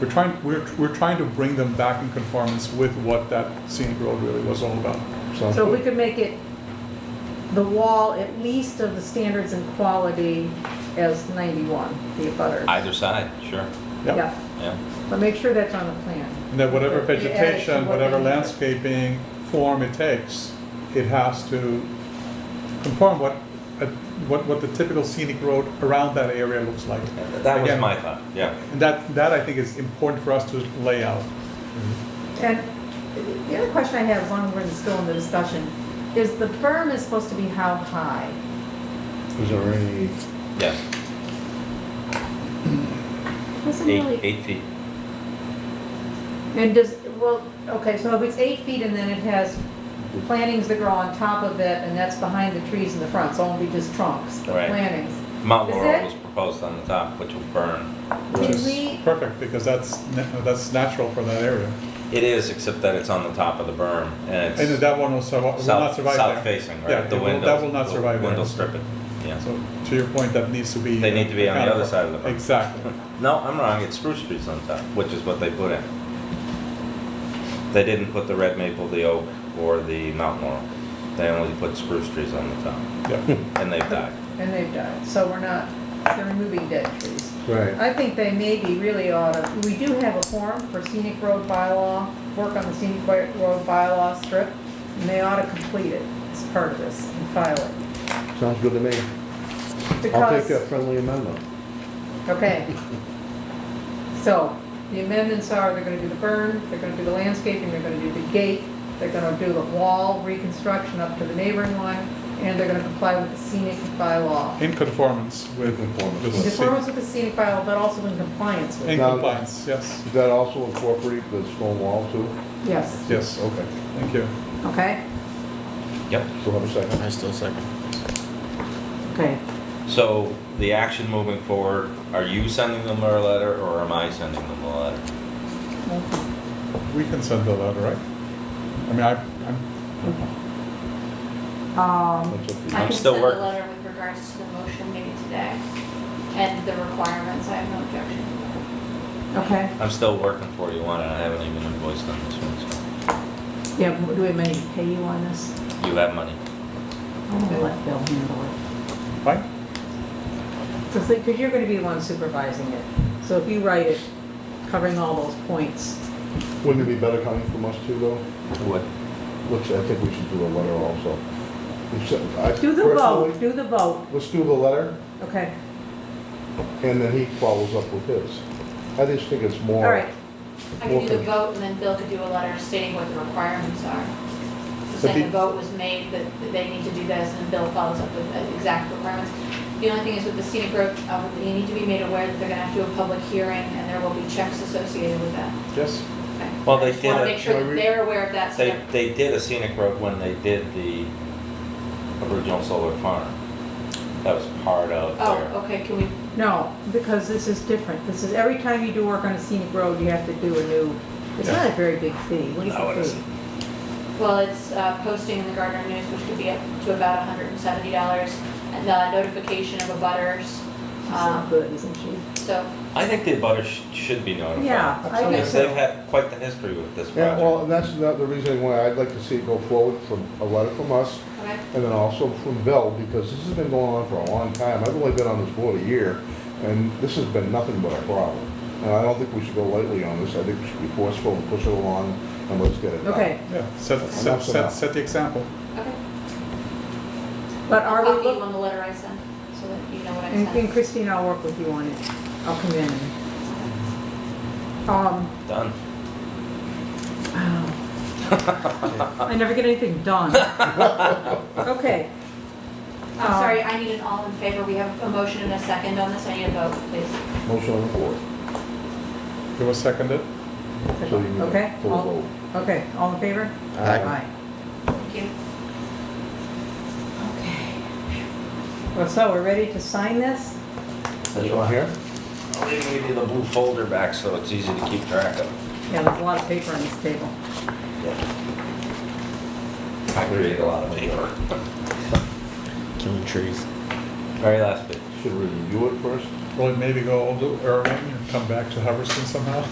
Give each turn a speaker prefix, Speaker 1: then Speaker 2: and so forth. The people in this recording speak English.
Speaker 1: We're trying, we're, we're trying to bring them back in conformance with what that scenic road really was all about.
Speaker 2: Sounds
Speaker 3: So if we
Speaker 2: good.
Speaker 3: could make it the wall at least of the standards and quality as 91, the abutters.
Speaker 4: Either side, sure,
Speaker 1: Yeah.
Speaker 3: Yeah,
Speaker 4: yeah.
Speaker 3: but make sure that's on the plan.
Speaker 1: And that whatever
Speaker 3: Yeah, it's
Speaker 1: vegetation,
Speaker 3: what
Speaker 1: whatever
Speaker 3: they need.
Speaker 1: landscaping form it takes, it has to conform what, uh, what, what the typical scenic road around that area looks like.
Speaker 4: That was
Speaker 1: Again,
Speaker 4: my thought, yeah.
Speaker 1: And that, that I think is important for us to lay out.
Speaker 3: And the other question I have, one we're still in the discussion, is the berm is supposed to be how high?
Speaker 2: Is there any,
Speaker 4: Yeah,
Speaker 3: Doesn't
Speaker 4: eight,
Speaker 3: really-
Speaker 4: eight feet.
Speaker 3: And does, well, okay, so if it's eight feet and then it has plantings that grow on top of it and that's behind the trees in the front, so it won't be just trunks, but
Speaker 4: Right.
Speaker 3: plantings.
Speaker 4: Mount
Speaker 3: Is
Speaker 4: Laurel
Speaker 3: it-
Speaker 4: was proposed on the top, which will burn.
Speaker 3: Did
Speaker 1: Which is
Speaker 3: we-
Speaker 1: perfect, because that's, na- that's natural for that area.
Speaker 4: It is, except that it's on the top of the berm, and
Speaker 1: And
Speaker 4: it's
Speaker 1: that one will survive, will not
Speaker 4: south,
Speaker 1: survive there.
Speaker 4: south facing,
Speaker 1: Yeah,
Speaker 4: right?
Speaker 1: it
Speaker 4: The
Speaker 1: will-
Speaker 4: windows.
Speaker 1: That will not survive there.
Speaker 4: Window strip it, yeah.
Speaker 1: So to your point, that needs to be. uh,
Speaker 4: They need to be on the other side of the road.
Speaker 1: Exactly.
Speaker 4: No, I'm wrong, it's spruce trees on top, which is what they put in. They didn't put the red maple, the oak, or the mountain laurel. They only put spruce trees on the top,
Speaker 1: Yeah.
Speaker 4: and they've died.
Speaker 3: And they've died, so we're not, they're removing dead trees.
Speaker 2: right,
Speaker 3: I think they maybe really ought to, we do have a form for scenic road bylaw, work on the scenic wa- road bylaw strip, and they ought to complete it as part of this and file it.
Speaker 2: sounds good to me. I'll take that
Speaker 3: Because,
Speaker 2: friendly amendment.
Speaker 3: okay. So, the amendments are, they're gonna do the burn, they're gonna do the landscaping, they're gonna do the gate, they're gonna do the wall reconstruction up to the neighboring one, and they're gonna comply with the scenic bylaw.
Speaker 1: In conformance with.
Speaker 2: In conformance
Speaker 1: the
Speaker 2: with.
Speaker 3: In
Speaker 1: scenic-
Speaker 3: conformance with the scenic bylaw, but also in compliance with,
Speaker 1: In
Speaker 3: it.
Speaker 2: Now-
Speaker 1: compliance, yes,
Speaker 2: Does that also incorporate the stone wall too?
Speaker 3: yes,
Speaker 1: yes,
Speaker 2: Okay,
Speaker 1: thank you.
Speaker 3: okay?
Speaker 4: Yep.
Speaker 2: so have a second.
Speaker 5: I still second.
Speaker 3: Okay.
Speaker 4: So the action moving forward, are you sending them a letter or am I sending them a letter?
Speaker 1: We can send the letter, right? I mean, I, I'm,
Speaker 3: Um,
Speaker 2: That's up
Speaker 4: I'm
Speaker 2: to
Speaker 6: I
Speaker 2: you.
Speaker 6: can
Speaker 4: still
Speaker 6: send a
Speaker 4: working.
Speaker 6: letter with regards to the motion maybe today and the requirements. I have no objection to that.
Speaker 3: okay,
Speaker 4: I'm still working for you on it, I haven't even invoiced on this one, so
Speaker 3: yeah, do we have money to pay you on this?
Speaker 4: you have money.
Speaker 3: I'm gonna let Bill handle it.
Speaker 1: fine,
Speaker 3: Because, because you're gonna be the one supervising it, so if you write it, covering all those points.
Speaker 2: Wouldn't it be better coming from us too though?
Speaker 4: What?
Speaker 2: Let's, I think we should do a letter also. We should- I
Speaker 3: Do the vote,
Speaker 2: personally-
Speaker 3: do the vote,
Speaker 2: Let's do the letter
Speaker 3: okay,
Speaker 2: and then he follows up with his. I just think it's more.
Speaker 3: all right,
Speaker 6: I could do the
Speaker 2: Okay.
Speaker 6: vote and then Bill could do a letter stating what the requirements are. The
Speaker 1: But the-
Speaker 6: second vote was made that that they need to do this and Bill follows up with the exact requirements. The only thing is with the scenic road, uh, you need to be made aware that they're gonna have to do a public hearing and there will be checks associated with that.
Speaker 1: yes,
Speaker 6: Okay?
Speaker 4: Well, they
Speaker 6: I just wanna
Speaker 4: did it.
Speaker 6: Make sure
Speaker 1: Well,
Speaker 6: that
Speaker 1: we-
Speaker 6: they're aware of that. so
Speaker 4: They,
Speaker 6: they're-
Speaker 4: they did a scenic road when they did the original solar farm. That was part of
Speaker 6: Oh,
Speaker 4: their,
Speaker 6: okay, can we,
Speaker 3: no, because this is different, this is, every time you do work on a scenic road, you have to do a new, it's not a very big fee, what is
Speaker 4: No, it
Speaker 3: the fee?
Speaker 4: isn't.
Speaker 6: Well, it's uh, posting in the Gardner News, which could be up to about $170, and the notification of abutters.
Speaker 3: She's not
Speaker 6: Um,
Speaker 3: good, isn't she?
Speaker 6: So,
Speaker 4: I think the abutters sh should be notified.
Speaker 3: Yeah, I
Speaker 2: Okay.
Speaker 3: think
Speaker 4: Because they've
Speaker 3: so,
Speaker 4: had quite the history with this
Speaker 2: Yeah, well,
Speaker 4: project.
Speaker 2: and that's not the reason why I'd like to see it go forward from a letter from us
Speaker 6: okay,
Speaker 2: and then also from Bill, because this has been going on for a long time. I've only been on this board a year, and this has been nothing but a problem. And I don't think we should go lightly on this. I think we should be forceful and push it along, and let's get it done.
Speaker 3: okay,
Speaker 1: yeah, set, set,
Speaker 2: Enough's
Speaker 1: set,
Speaker 2: enough.
Speaker 1: set the example.
Speaker 6: okay.
Speaker 3: but are
Speaker 6: I'll
Speaker 3: we
Speaker 6: copy you
Speaker 3: looking?
Speaker 6: on the letter I sent, so that you know what I
Speaker 3: And and
Speaker 6: sent.
Speaker 3: Christine, I'll work with you on it. I'll come in and, um,
Speaker 4: Done.
Speaker 3: I never get anything done. Okay. Uh,
Speaker 6: I'm
Speaker 3: Oh.
Speaker 6: sorry, I need an all in favor, we have a motion and a second on this, I need a vote, please.
Speaker 2: Motion on the floor.
Speaker 1: It was seconded,
Speaker 2: So you can
Speaker 3: Okay,
Speaker 2: pull
Speaker 3: all-
Speaker 2: vote.
Speaker 3: Okay, all in favor?
Speaker 2: Aye.
Speaker 6: Thank you.
Speaker 3: Okay. Well, so we're ready to sign this?
Speaker 2: This one here?
Speaker 4: I'll even give you the blue folder back so it's easy to keep track of.
Speaker 3: Yeah, there's a lot of paper on this table.
Speaker 4: I create a lot of paper.
Speaker 5: Killing trees.
Speaker 4: Very last bit.
Speaker 2: Should we review it first?
Speaker 1: will it maybe go over to Irving and come back to Hubbardston somehow?